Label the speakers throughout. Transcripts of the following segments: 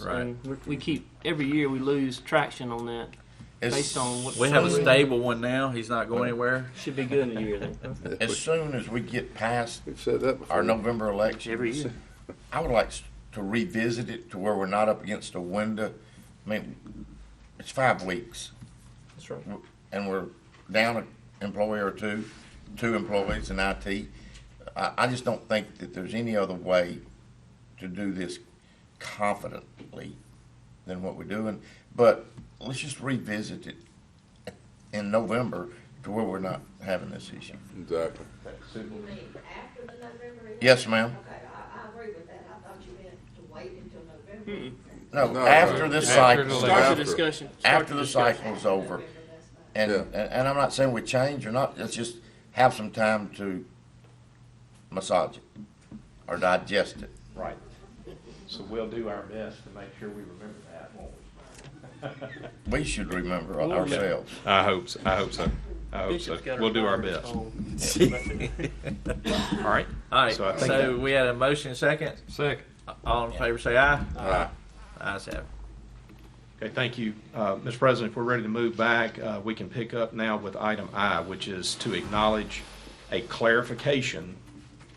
Speaker 1: So
Speaker 2: Right.
Speaker 1: we, we keep every year we lose traction on that
Speaker 3: As-
Speaker 1: based on what
Speaker 2: We have a
Speaker 1: so
Speaker 2: stable one now. He's not going anywhere.
Speaker 1: should be good in a year then.
Speaker 3: As soon as we get past
Speaker 4: We've said that before.
Speaker 3: our November election,
Speaker 1: Every year.
Speaker 3: I would like s- to revisit it to where we're not up against a window. I mean, it's five weeks,
Speaker 1: That's right.
Speaker 3: w- and we're down an employee or two, two employees in IT. I, I just don't think that there's any other way to do this confidently than what we're doing. But let's just revisit it in November to where we're not having this issue.
Speaker 4: Exactly.
Speaker 5: You mean after the November election?
Speaker 3: Yes, ma'am.
Speaker 5: Okay, I, I agree with that. I thought you meant to wait until November.
Speaker 3: No,
Speaker 4: No,
Speaker 3: after
Speaker 4: right.
Speaker 3: this
Speaker 6: After
Speaker 3: cycle,
Speaker 6: the
Speaker 1: Start
Speaker 4: After.
Speaker 1: the discussion. Start
Speaker 3: after the
Speaker 1: discussion.
Speaker 3: cycle's over.
Speaker 5: November, that's fine.
Speaker 3: And,
Speaker 4: Yeah.
Speaker 3: and and I'm not saying we change or not, let's just have some time to massage it or digest it.
Speaker 7: Right. So we'll do our best to make sure we remember that, won't
Speaker 3: We should remember
Speaker 1: Well, yeah.
Speaker 3: ourselves.
Speaker 6: I hope so. I hope so. I hope so.
Speaker 1: Bishop's got her
Speaker 6: We'll do our
Speaker 1: fingers
Speaker 6: best.
Speaker 1: on-
Speaker 6: All right.
Speaker 2: All right.
Speaker 6: So I
Speaker 2: So,
Speaker 6: think that-
Speaker 2: we had a motion second.
Speaker 6: Second.
Speaker 2: All in favor say aye.
Speaker 4: Aye.
Speaker 2: Ayes have it.
Speaker 6: Okay, thank you. Uh, Mr. President, if we're ready to move back, uh, we can pick up now with item I, which is to acknowledge a clarification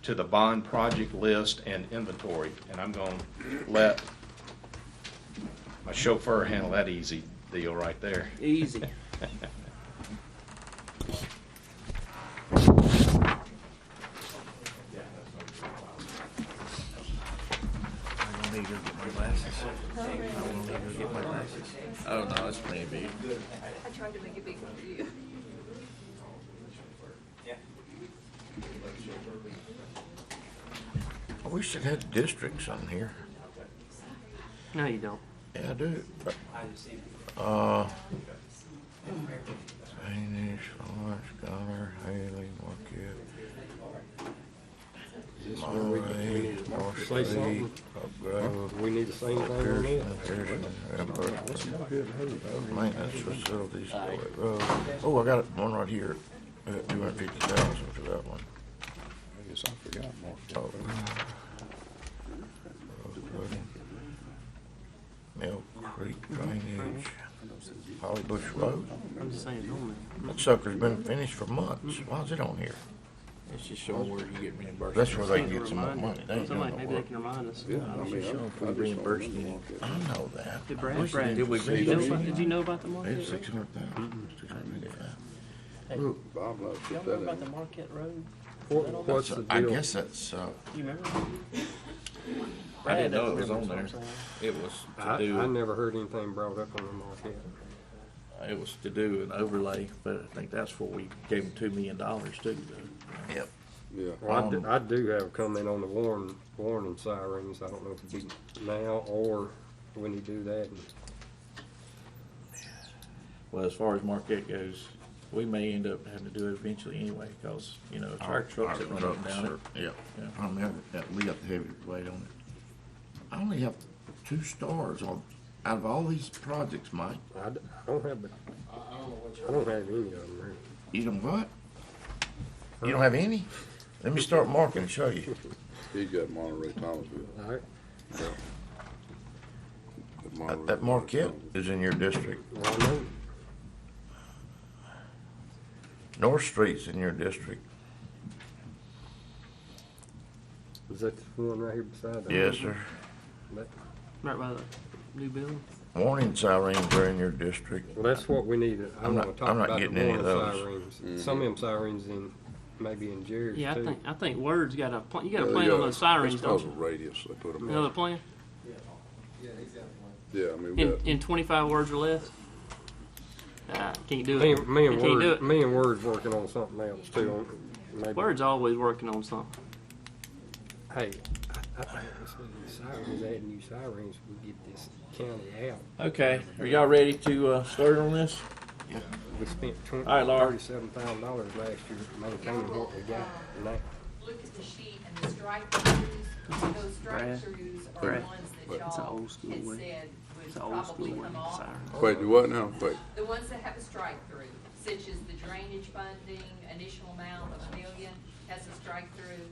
Speaker 6: to the bond project list and inventory. And I'm going to let my chauffeur handle that easy deal right there.
Speaker 1: Easy.
Speaker 2: Oh no, it's pretty big.
Speaker 8: I tried to make it big one for you.
Speaker 3: I wish it had districts on here.
Speaker 1: No, you don't.
Speaker 3: Yeah, I do. Uh, Danish, Lawrence, Gunner, Haley, Marquette. Monterey, Marsh Lee, Oak Grove. We need the same thing on Maintenance facilities, Boyd Road. Oh, I got one right here, uh, two hundred fifty thousand for that one.
Speaker 4: I guess I forgot more.
Speaker 3: Oh. Uh, Mill Creek Drainage, Holly Bush Road.
Speaker 1: I'm just saying, don't
Speaker 3: That sucker's been finished for months. Why is it on here?
Speaker 2: It's just showing where you get reimbursed.
Speaker 3: That's where they
Speaker 1: man.
Speaker 3: can get some more money. They ain't
Speaker 1: Somebody, maybe
Speaker 3: doing no
Speaker 1: they
Speaker 3: work.
Speaker 1: can remind us.
Speaker 4: Yeah, I mean, I'm- I just
Speaker 2: reimbursed
Speaker 4: saw
Speaker 3: I
Speaker 4: them walk
Speaker 3: know that.
Speaker 1: Did
Speaker 3: I
Speaker 1: Brad,
Speaker 3: wish they
Speaker 1: Brad,
Speaker 3: did.
Speaker 2: Did we
Speaker 1: did you know about, did you know about the
Speaker 3: They had
Speaker 1: Marquette Road?
Speaker 3: six hundred thousand, six hundred fifty-five.
Speaker 4: it. Bob loves to
Speaker 1: Y'all
Speaker 4: put that
Speaker 1: remember about the
Speaker 4: in.
Speaker 1: Marquette Road?
Speaker 4: What's the
Speaker 3: I
Speaker 4: deal?
Speaker 3: guess that's, uh,
Speaker 1: You remember?
Speaker 2: I
Speaker 1: Brad
Speaker 2: didn't know
Speaker 1: doesn't
Speaker 2: it was on
Speaker 1: remember,
Speaker 2: there.
Speaker 1: so I'm saying.
Speaker 2: It was to
Speaker 9: I, I
Speaker 2: do,
Speaker 9: never heard anything brought up on the market.
Speaker 2: it was to do an overlay, but I think that's what we gave them two million dollars to. though.
Speaker 3: yep.
Speaker 4: Yeah.
Speaker 9: Well, I
Speaker 3: Um,
Speaker 9: do, I do have a comment on the warn, warning sirens. I don't know if it be now or when you do that.
Speaker 2: Well, as far as Marquette goes, we may end up having to do it eventually anyway, cause, you know, it's our trucks that run up and down it.
Speaker 3: Yep.
Speaker 2: Yeah.
Speaker 3: I remember that we got the heavy weight on it. I only have two stars on, out of all these projects, Mike.
Speaker 9: I, d- I don't have, I don't have any of them. really.
Speaker 3: You don't what? You don't have any? Let me start marking and show you.
Speaker 4: He got Monterey Thomasville.
Speaker 9: All right,
Speaker 4: That
Speaker 3: That
Speaker 4: Monterey-
Speaker 3: that Marquette is in your district.
Speaker 9: well, I know,
Speaker 3: North Street's in your district.
Speaker 9: is that the one right here beside that?
Speaker 3: Yes, sir.
Speaker 9: That-
Speaker 1: Right by the new building?
Speaker 3: Warning sirens are in your district.
Speaker 9: Well, that's what we need. to- I
Speaker 3: I'm
Speaker 9: wanna
Speaker 3: not-
Speaker 9: talk
Speaker 3: I'm not
Speaker 9: about the
Speaker 3: getting any of
Speaker 9: warning
Speaker 3: those.
Speaker 9: sirens. Some of them sirens in, maybe in Jerry's
Speaker 1: Yeah, I
Speaker 9: too.
Speaker 1: think, I think Word's got a, pla- you got
Speaker 4: Oh, Yeah,
Speaker 1: a
Speaker 4: they
Speaker 1: plan on those sirens,
Speaker 4: it's
Speaker 1: don't
Speaker 4: called a
Speaker 1: you?
Speaker 4: radius they put 'em
Speaker 1: You
Speaker 4: on.
Speaker 1: know the plan?
Speaker 4: Yeah, I mean, we
Speaker 1: In,
Speaker 4: got,
Speaker 1: in twenty-five words or less? Nah, can't do it.
Speaker 9: Me, and- me
Speaker 1: You
Speaker 9: and
Speaker 1: can't do it.
Speaker 9: Word, me and Word's working on something else too. on- maybe-
Speaker 1: Word's always working on something.
Speaker 9: Hey, I, I think this is sirens, adding new sirens, we get this county out.
Speaker 2: Okay, are y'all ready to, uh, start on this?
Speaker 9: We spent twenty,
Speaker 2: All right, Laura.
Speaker 9: thirty-seven thousand dollars last year maintaining what we got. and that-
Speaker 8: Look at the sheet and the strike throughs, those strike
Speaker 1: Brad.
Speaker 8: throughs are
Speaker 1: Brad.
Speaker 8: ones
Speaker 4: Brad.
Speaker 8: that
Speaker 1: It's an
Speaker 8: y'all
Speaker 1: old school
Speaker 8: had
Speaker 1: way.
Speaker 8: said would
Speaker 1: It's an old school
Speaker 8: probably
Speaker 1: way,
Speaker 8: come off.
Speaker 1: siren.
Speaker 4: wait, do what now? Wait,
Speaker 8: The ones that have a strike through, such as the drainage funding, initial amount of a million has a strike through.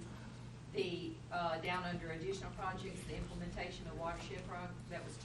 Speaker 8: The, uh, down under additional projects, the implementation of watershed pro, that was